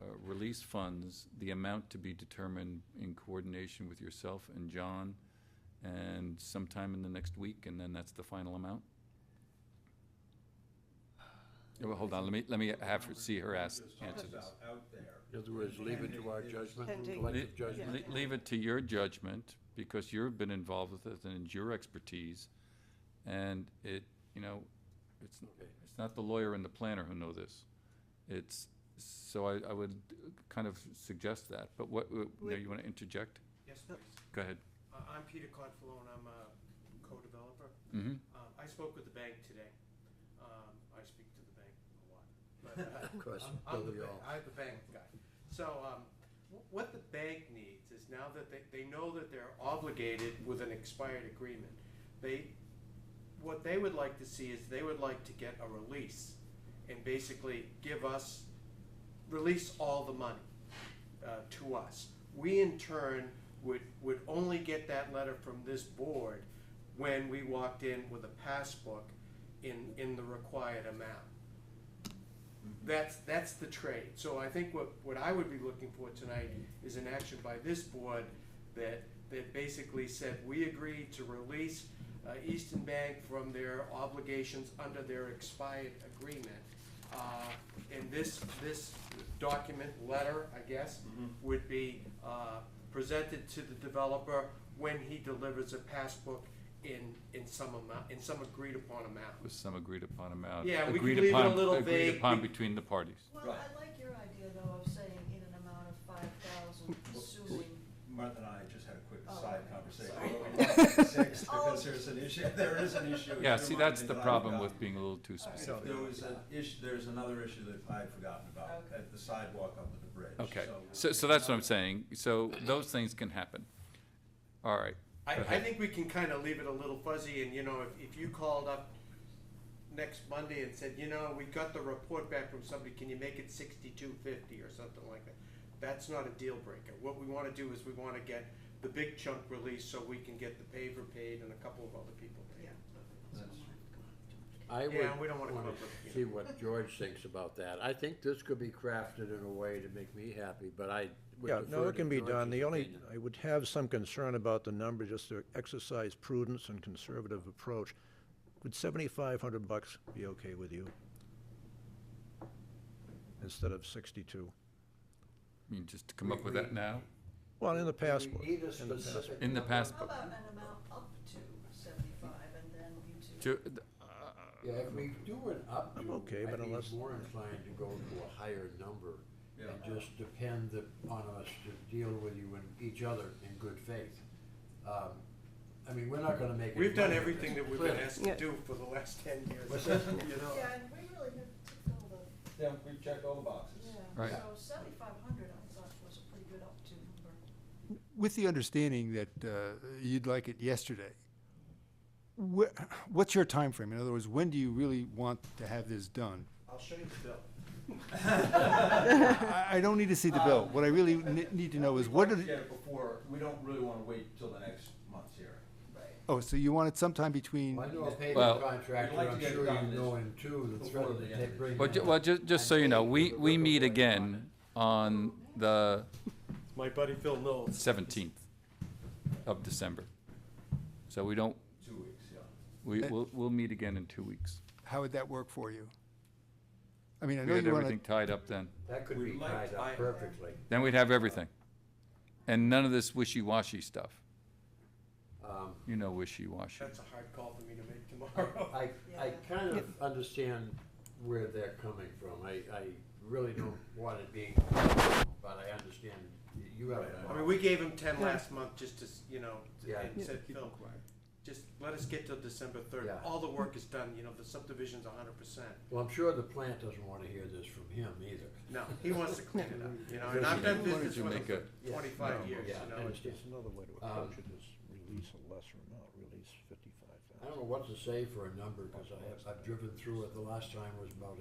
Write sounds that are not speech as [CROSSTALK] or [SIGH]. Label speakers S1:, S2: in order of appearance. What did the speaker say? S1: uh, funds, the amount to be determined in coordination with yourself and John, and sometime in the next week, and then that's the final amount? Yeah, Well, hold on, let me, let me have her, see her ask, answer this.
S2: In other words, leave it to our judgment,
S3: Pending.
S2: collective
S1: Le-
S2: judgment.
S1: le- Leave it to your judgment, because you've been involved with it and it's your expertise. And it, you know, it's,
S2: Okay.
S1: it's not the lawyer and the planner who know this. It's, so I, I would kind of suggest that, but what, uh, now
S3: Would-
S1: you want to interject?
S4: Yes, please.
S1: Go ahead.
S4: Uh, I'm Peter Confalone, I'm a co-developer.
S1: Mm-hmm.
S4: Um, I spoke with the bank today. Um, I speak to the bank a lot. but, uh,
S2: Of course,
S4: I'm-
S2: but
S4: I'm the
S2: we
S4: ba-
S2: all-
S4: I'm the bank guy. So um, wh- what the bank needs is now that they, they know that they're obligated with an expired agreement, they, what they would like to see is they would like to get a release and basically give us, release all the money uh, to us. We in turn would, would only get that letter from this board when we walked in with a passbook in, in the required amount. That's, that's the trade. So I think what, what I would be looking for tonight is an action by this board that, that basically said, we agree to release uh, Eastern Bank from their obligations under their expired agreement. Uh, And this, this document, letter, I guess, would be uh, presented to the developer when he delivers a passbook in, in some amount, in some agreed upon amount.
S1: With some agreed upon amount.
S4: Yeah, we could
S1: Agreed
S4: leave it a
S1: upon-
S4: little
S1: Agreed
S4: vague
S1: upon
S4: be-
S1: between the parties.
S5: Well, I like your idea though of saying in an amount of five thousand, assuming,
S6: Martha and I just had a quick
S5: Oh,
S6: side
S5: okay.
S6: conversation.
S5: Sorry.
S6: [LAUGHS] Six,
S5: Oh.
S6: Because there's an issue, [LAUGHS] there is an issue. with
S1: Yeah,
S6: your
S1: see, that's
S6: marketing
S1: the
S6: that I
S1: problem
S6: forgot.
S1: with being a little too
S5: All right.
S1: specific.
S6: There was an issue, there's another issue that I had forgotten about,
S5: Okay.
S6: at the sidewalk up at the bridge.
S1: Okay, so, so that's what I'm saying. So those things can happen. All right.
S4: I,
S1: Go
S4: I
S1: ahead.
S4: think we can kind of leave it a little fuzzy, and you know, if, if you called up next Monday and said, you know, we got the report back from somebody, can you make it sixty-two fifty or something like that? That's not a deal breaker. What we want to do is we want to get the big chunk released so we can get the paver paid and a couple of other people paid.
S5: yeah.
S2: I
S4: Yeah, we
S2: would
S4: don't wanna come
S2: wanna
S4: up with, you
S2: see what George thinks about that. I think this could be crafted in a way to make me happy, but I would
S7: Yeah,
S2: defer
S7: no, it
S2: to
S7: can be done.
S2: George's
S7: The only,
S2: opinion.
S7: I would have some concern about the number, just to exercise prudence and conservative approach. Would seventy-five hundred bucks be okay with you? Instead of sixty-two?
S1: I mean, just to come up with that now?
S7: Well, in the past.
S2: We need a
S7: in the past.
S2: specific
S1: In the
S2: number.
S1: past,
S5: How about an amount up to seventy-five and then you two?
S1: to,
S2: Yeah, if we do an up
S7: I'm
S2: to,
S7: okay, but
S2: I'd be
S7: unless-
S2: more inclined to go to a higher number
S6: Yeah.
S2: and just depend the- on us to deal with you and each other in good faith. Um, I mean, we're not gonna make. any
S4: We've done
S2: money with
S4: everything
S2: this,
S4: that we've been
S2: clearly.
S4: asked to do for the last ten years.
S2: What's that?
S4: [LAUGHS] You know?
S5: Yeah, and we really have to fill the,
S6: Yeah, we've checked all the boxes.
S1: Right.
S5: yeah, so seventy-five hundred I thought was a pretty good up to number.
S8: With the understanding that uh, you'd like it yesterday, wh- what's your time frame? In other words, when do you really want to have this done?
S4: I'll show you the bill.
S8: I I don't need to see the bill. What I really ne- need to know is what are,
S6: Get
S8: the-
S6: it before, we don't really wanna wait till the next month's hearing.
S5: Right.
S8: oh, so you want it sometime between,
S2: Well, I know a
S1: Well-
S2: paving contractor,
S6: We'd like
S2: I'm
S6: to get it
S2: sure
S6: done
S2: you know
S6: this-
S2: him too, the
S6: before
S2: threat of
S6: the
S2: the
S6: end of
S2: tape
S6: this
S2: bring.
S6: year.
S1: well, ju- well, just, just so you know, we, we meet again on the
S4: My buddy Phil Knowles.
S1: seventeenth of December. So we don't,
S6: Two weeks, yeah.
S1: we, we'll, we'll meet again in two weeks.
S8: how would that work for you? I mean, I
S1: We
S8: know
S1: had
S8: you
S1: everything
S8: want to,
S1: tied up then.
S2: That could
S6: We'd
S2: be
S6: like
S2: tied
S6: to- I-
S2: up perfectly.
S1: Then we'd have everything. And none of this wishy-washy stuff.
S2: Um,
S1: You know wishy-washy.
S4: That's a hard call for me to make tomorrow.
S2: I, I
S5: Yeah.
S2: kind of understand where they're coming from. I, I really don't want it being, but I understand you have.
S4: I mean, we gave him ten last month just to, s- you know,
S2: Yeah.
S4: and said, Phil, just let us get till December third.
S2: Yeah.
S4: All the work is done, you know, the subdivision's a hundred percent.
S2: Well, I'm sure the plant doesn't want to hear this from him either. [LAUGHS]
S4: No, he wants to clean it up, you know, and I've done
S1: Why don't
S4: business
S1: you
S4: with him
S1: make
S4: for
S1: a-
S2: Yeah.
S4: twenty-five years,
S2: Yeah,
S4: you
S2: I
S4: know.
S2: understand.
S7: There's another way to
S2: Um,
S7: approach it is release a lesser amount, release
S2: I
S7: fifty-five thousand.
S2: don't know what to say for a number because I have, I've driven through it. The last time was about